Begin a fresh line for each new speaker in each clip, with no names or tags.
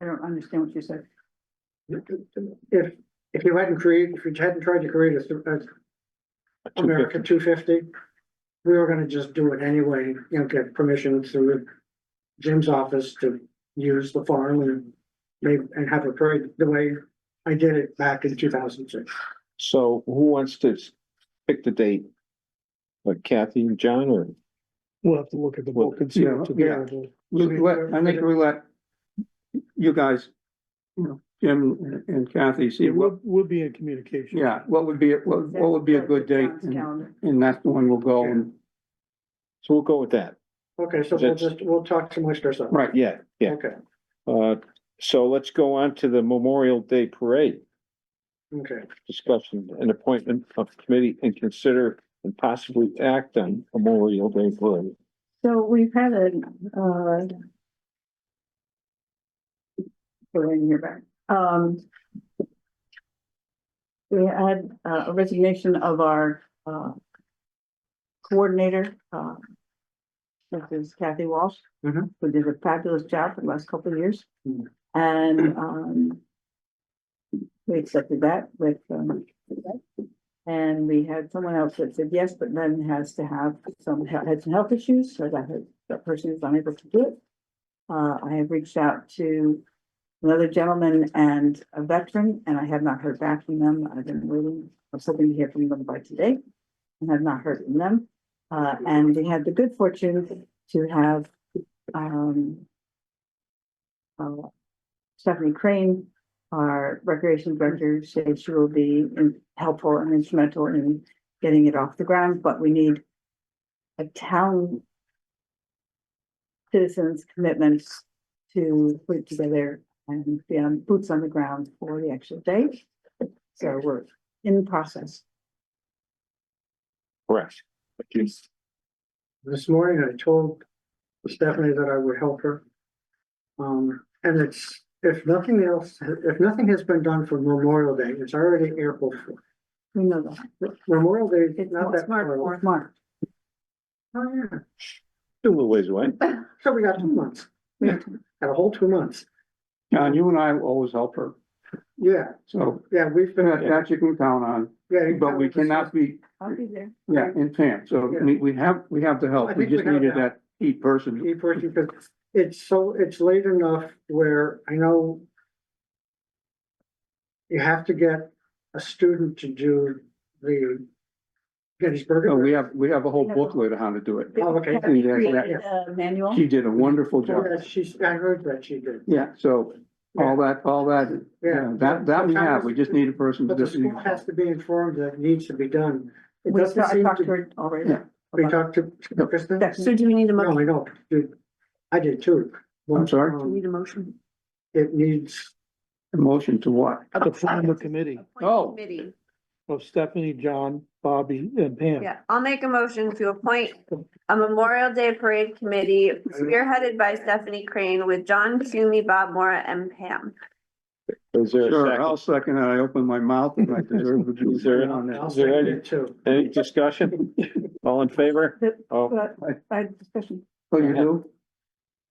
I don't understand what you said.
If, if you hadn't created, if you hadn't tried to create a, th- a America two fifty, we were gonna just do it anyway, you know, get permission through Jim's office to use the farm and make, and have a parade the way I did it back in two thousand six.
So who wants to s- pick the date? Like Kathy and John or?
We'll have to look at the book and see.
Yeah,
what to do.
yeah, we- we- I think we let you guys, you know, Jim and Kathy see
Yeah,
what,
We'll, we'll be in communication.
yeah, what would be, what, what would be a good date?
John's
And
calendar.
and that's the one we'll go and,
So we'll go with that.
Okay, so we'll
That's-
just, we'll talk some more stuff.
right,
Yeah, yeah.
Okay,
Uh, so let's go on to the Memorial Day Parade.
okay.
Discussion and appointment of committee and consider and possibly act on Memorial Day Parade.
So we've had an, uh. Go in your back, um. We had uh, a resignation of our, uh. Coordinator, uh. This is Kathy Walsh.
Mm-hmm.
Mhm.
Who did a fabulous job for the last couple of years.
Mhm.
And, um. We accepted that with, um. And we had someone else that said yes, but then has to have some, had some health issues, so that, that person is unable to do it. Uh, I have reached out to another gentleman and a veteran, and I have not heard back from them. I've been waiting, I was hoping to hear from them by today. And have not heard from them. Uh, and we had the good fortune to have, um, uh, Stephanie Crane, our recreation director, said she will be in- helpful and instrumental in getting it off the ground, but we need a town citizens' commitments to put it together and be on boots on the ground for the actual day. So we're in process.
Correct.
This morning I told Stephanie that I would help her. Um, and it's, if nothing else, if nothing has been done for Memorial Day, it's already April fourth.
We know that.
Memorial Day, is
It's
not that
smart
far. away.
or smart.
Oh, yeah,
Still a little ways away.
so we got two months,
We-
got a whole two months,
John, you and I will always help her,
yeah,
so
yeah, we've been.
that that you can count on,
yeah,
but we cannot be,
I'll be there.
yeah, in Pam, so we, we have, we have the
I
help, we
think we
just
have
needed
that.
that key person.
Keep working, because it's so, it's late enough where I know. You have to get a student to do the Gettysburg.
So
Oh,
we have, we have a whole booklet on how to do it.
Oh, okay.
Have you
Yeah, yeah.
created a uh, manual?
She did a wonderful job,
Yeah, she's, I heard that she did,
yeah, so all that, all that,
yeah.
yeah, that, that we have, we just need a person to
But the
just.
school has to be informed that it needs to be done. It
We
doesn't
talked I
seem
talked to
to,
her already.
Yeah.
we talked to
No.
Kristen?
So do we need a
No,
motion?
I don't, Dude, I did too.
I'm sorry?
Do we
Um,
Need a motion?
It needs,
Motion to what?
To form a committee
appoint
Oh.
committee.
of Stephanie, John, Bobby and Pam.
Yeah, I'll make a motion to appoint a Memorial Day Parade Committee spearheaded by Stephanie Crane with John Toomey, Bob Mora, and Pam.
Is there a
Sure, I'll
second?
second that. I open my mouth and I deserve to be
Is there
there on
I'll
that.
Oh, Is there
second
any-
it too.
Any discussion? All in favor?
The-
Oh,
But I had discussion.
Oh, you do?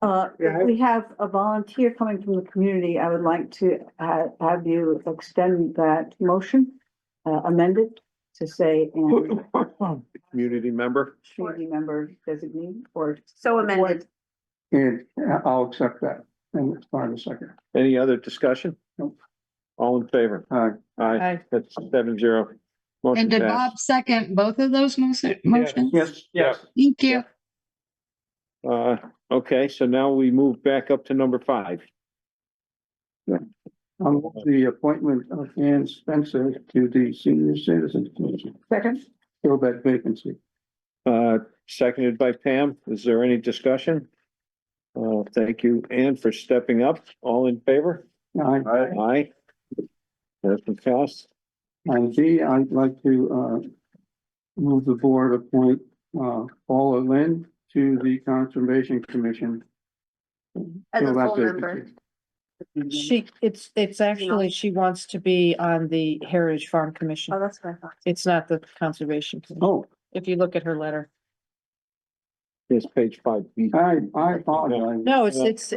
Uh,
Yeah, I-
we have a volunteer coming from the community. I would like to ha- have you extend that motion uh, amended to say and
Um,
community member?
community member designee or
So amended.
And I'll accept that. And it's fine a second.
Any other discussion?
Nope.
All in favor?
All right.
Aye,
Aye.
that's seven zero.
And
Motion
did
passed.
Bob second both of those motion- motions?
Yes,
Yes.
Thank you.
Uh, okay, so now we move back up to number five.
on Um, the appointment of Ann Spencer to the Senior Citizens Commission.
second?
Fill that vacancy.
Uh, seconded by Pam. Is there any discussion? Uh, thank you, Ann, for stepping up. All in favor?
I,
Aye. Motion passed.
on G, I'd like to, uh, move the board appoint, uh, Paula Lynn to the Conservation Commission.
As a
Fill that
full member.
vacancy.
She, it's, it's actually, she wants to be on the Heritage Farm Commission.
Oh, that's what I thought.
It's not the Conservation. Commission.
Oh,
If you look at her letter.
Here's page five.
I, I apologize.
No, it's, it's,